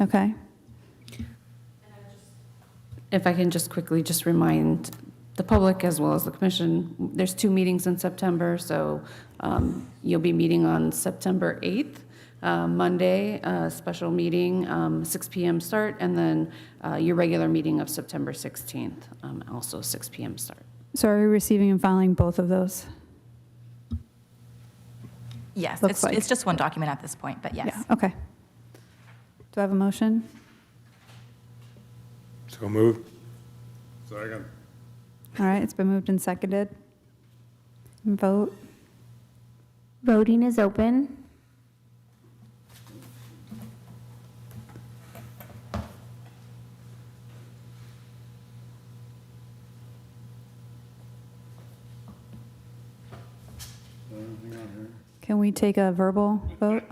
Okay. If I can just quickly just remind the public as well as the commission, there's two meetings in September, so um, you'll be meeting on September 8th, uh, Monday, a special meeting, um, 6 PM start, and then uh, your regular meeting of September 16th, um, also 6 PM start. So are we receiving and filing both of those? Yes, Looks it's, like. it's just one document at this point, but yes. Yeah, Okay. Do I have a motion? So moved. Second. All right, it's been moved and seconded. Vote. Voting is open. Can we take a verbal vote?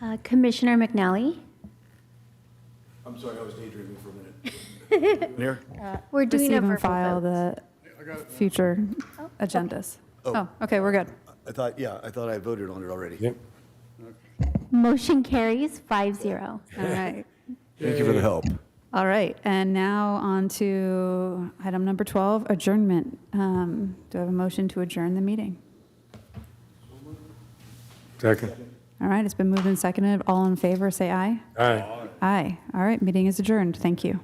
Uh, Commissioner McNally? I'm sorry, I was daydreaming for a minute. Mayor? We're doing a Receive verbal and file vote. the future agendas. Oh, okay, we're good. I thought, yeah, I thought I voted on it already. Yep. Motion carries five zero. All right. Thank you for the help. All right, and now on to item number 12, adjournment. Um, Do I have a motion to adjourn the meeting? Second. All right, it's been moved and seconded. All in favor, say aye. Aye. Aye. All right, meeting is adjourned. Thank you.